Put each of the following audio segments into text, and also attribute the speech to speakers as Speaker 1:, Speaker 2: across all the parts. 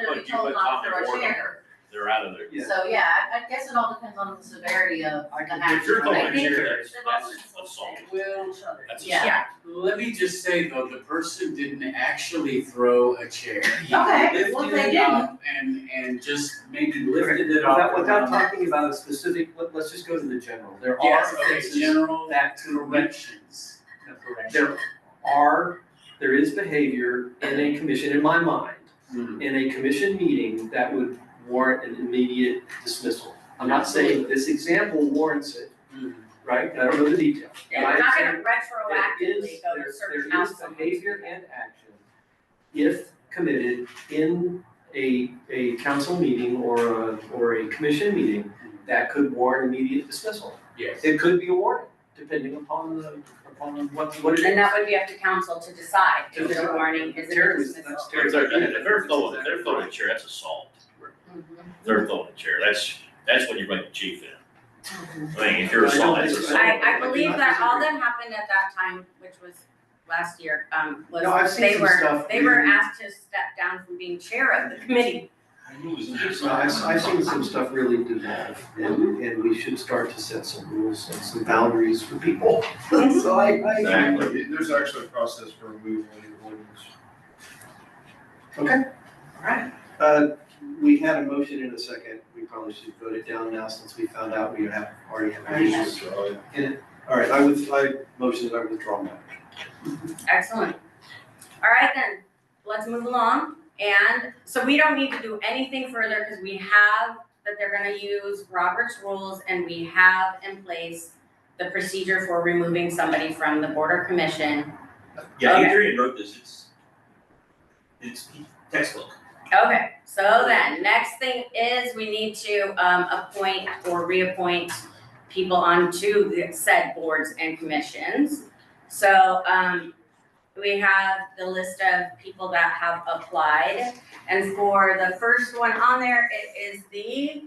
Speaker 1: if you put Tom
Speaker 2: They're
Speaker 1: DeBoer on,
Speaker 2: chair.
Speaker 1: they're out of there.
Speaker 3: Yeah.
Speaker 2: So, yeah, I, I guess it all depends on the severity of the
Speaker 1: If
Speaker 2: action.
Speaker 1: you're
Speaker 2: but I
Speaker 1: throwing
Speaker 2: think-
Speaker 1: chairs, that's assault.
Speaker 4: Will Chubbard.
Speaker 1: That's
Speaker 2: Yeah.
Speaker 1: assault.
Speaker 5: Let me just say though, the person didn't actually throw a chair. He
Speaker 2: Okay, well, if they
Speaker 5: lifted it up And, and just maybe lifted it up.
Speaker 3: Without, without
Speaker 5: and-
Speaker 3: talking about a specific, let, let's just go to the general. There are
Speaker 5: Yes, okay,
Speaker 3: offenses
Speaker 5: general
Speaker 3: that to
Speaker 5: corrections.
Speaker 3: There are, there is behavior in a commission, in my mind,
Speaker 5: Mhm.
Speaker 3: in a commission meeting that would warrant an immediate dismissal. I'm not saying this example warrants it,
Speaker 5: Mhm.
Speaker 3: right? I don't know the detail.
Speaker 4: They're
Speaker 3: And I
Speaker 4: not
Speaker 3: understand
Speaker 4: gonna retroactively go
Speaker 3: There
Speaker 4: to
Speaker 3: is,
Speaker 4: certain
Speaker 3: there, there is
Speaker 4: council.
Speaker 3: behavior and action if committed in a, a council meeting or a, or a commission meeting that could warrant immediate dismissal.
Speaker 5: Yes.
Speaker 3: It could be a warrant, depending upon the, upon what, what it is.
Speaker 4: And that would be up to council to decide,
Speaker 3: To
Speaker 4: is it a
Speaker 3: decide.
Speaker 4: warning, is it a
Speaker 3: Terry was-
Speaker 4: dismissal?
Speaker 3: that's Terry.
Speaker 1: If they're, if they're throwing, if they're throwing a chair, that's assault.
Speaker 2: Mhm,
Speaker 1: If They're throwing a chair, that's, that's when you bring the chief in.
Speaker 2: mhm.
Speaker 1: I mean, if you're
Speaker 3: I don't
Speaker 1: assault, that's
Speaker 3: think so.
Speaker 1: assault.
Speaker 4: I, I
Speaker 3: I do
Speaker 4: believe
Speaker 3: not
Speaker 4: that all
Speaker 3: disagree.
Speaker 4: that happened at that time, which was last year, um,
Speaker 3: No, I've
Speaker 4: was
Speaker 3: seen
Speaker 4: they
Speaker 3: some
Speaker 4: were,
Speaker 3: stuff
Speaker 4: they were
Speaker 3: where-
Speaker 4: asked to step down from being chair of the committee.
Speaker 3: So I, I've seen some stuff really devolve, and, and we should start to set some rules and some boundaries for people. So I, I.
Speaker 1: Exactly.
Speaker 6: There's actually a process for removal of the ordinance.
Speaker 3: Okay. Alright. Uh, we had a motion in a second, we probably should vote it down now since we found out we have, already have an issue. Alright, I would, I motion, I withdraw my.
Speaker 4: Excellent. All right then, let's move along. And so we don't need to do anything further because we have that they're gonna use Robert's rules and we have in place the procedure for removing somebody from the board or commission.
Speaker 7: Yeah,
Speaker 4: Okay.
Speaker 7: Adrian wrote this, it's, it's textbook.
Speaker 4: Okay, so then, next thing is we need to um appoint or reappoint people onto the said boards and commissions. So um we have the list of people that have applied. And for the first one on there, it is the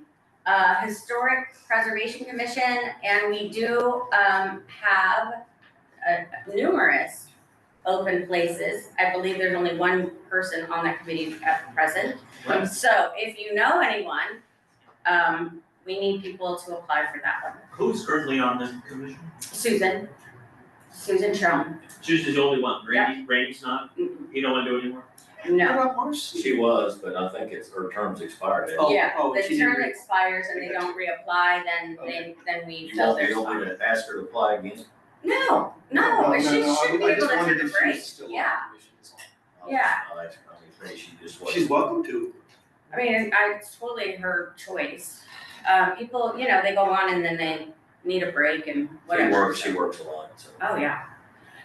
Speaker 4: uh Historic Preservation Commission and we do um have uh numerous open places. I believe there's only one person on that committee at present.
Speaker 3: Right.
Speaker 4: So if you know anyone, um, we need people to apply for that one.
Speaker 7: Who's currently on this commission?
Speaker 4: Susan, Susan Chong,
Speaker 7: Susan's the only one, Randy, Randy's not,
Speaker 4: Mm,
Speaker 7: he don't wanna do it anymore?
Speaker 4: no.
Speaker 3: What about Marcy?
Speaker 8: She was, but I think it's, her term's expired.
Speaker 3: Oh,
Speaker 4: Yeah,
Speaker 3: oh, she
Speaker 4: The
Speaker 3: didn't
Speaker 4: term
Speaker 3: re-
Speaker 4: expires and they don't reapply, then they, then we
Speaker 8: You
Speaker 4: fill
Speaker 8: won't be
Speaker 4: their
Speaker 8: able
Speaker 4: spot.
Speaker 8: to ask her to apply again?
Speaker 4: No,
Speaker 3: No,
Speaker 4: no,
Speaker 3: no,
Speaker 4: she
Speaker 3: no, I
Speaker 4: should be
Speaker 3: would- I
Speaker 4: able
Speaker 3: just
Speaker 4: to
Speaker 3: wondered
Speaker 4: take a
Speaker 3: if she was
Speaker 4: break,
Speaker 3: still on the
Speaker 4: yeah.
Speaker 3: commission. That's all.
Speaker 4: Yeah.
Speaker 8: I was- I was thinking she just wasn't.
Speaker 3: She's welcome to.
Speaker 4: I mean, it's- I, it's totally her choice. Uh, people, you know, they go on and then they need a break and whatever.
Speaker 8: She works, she works a lot, so.
Speaker 4: Oh, yeah.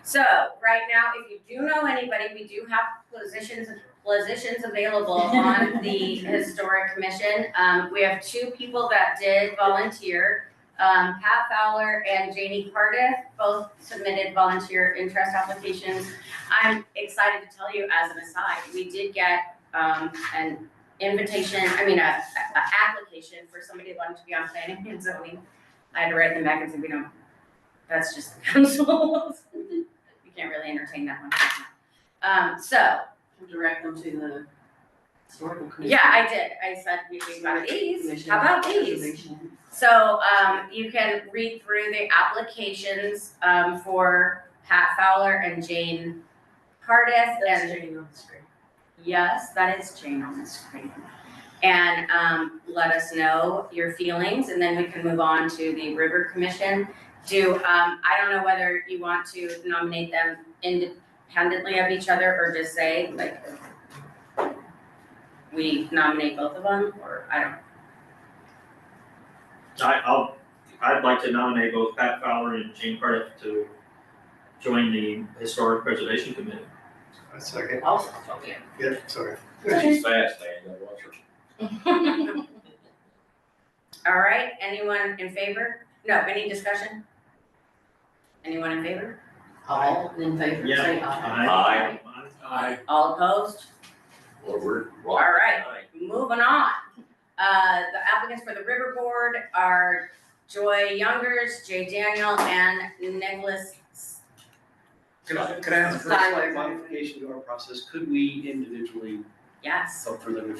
Speaker 4: So right now, if you do know anybody, we do have positions, positions available on the historic commission. Um, we have two people that did volunteer, um, Pat Fowler and Janie Cardiff, both submitted volunteer interest applications. I'm excited to tell you as an aside, we did get, um, an invitation, I mean, a, a- a application for somebody that wanted to be on planning and zoning. I had to write them back and say, we don't that's just the council. We can't really entertain that one. Um, so,
Speaker 2: Direct them to the historical commission.
Speaker 4: yeah, I did, I said, we we got these, how about these? So, um, you can read through the applications, um, for Pat Fowler and Jane Cardiff and
Speaker 2: on the screen.
Speaker 4: Yes, that is Jane on the screen. And um, let us know your feelings and then we can move on to the River Commission. Do, um, I don't know whether you want to nominate them independently of each other or just say like we nominate both of them or I don't,
Speaker 7: I, I'll, I'd like to nominate both Pat Fowler and Jane Cardiff to join the Historic Preservation Committee.
Speaker 3: A second.
Speaker 4: also,
Speaker 3: Yeah, sorry.
Speaker 8: She's fast, man, you gotta watch her.
Speaker 4: All right, anyone in favor? No, any discussion? Anyone in favor?
Speaker 2: All in favor, say aye.
Speaker 8: Aye.
Speaker 5: I,
Speaker 4: All opposed?
Speaker 8: Or we're.
Speaker 4: All right. Moving on, uh, the applicants for the River Board are Joy Youngers, Jay Daniel, and Nicholas. S-
Speaker 3: Could I, could I ask for a
Speaker 4: Siler.
Speaker 3: slight modification to our process? Could we individually
Speaker 4: Yes.
Speaker 3: vote for them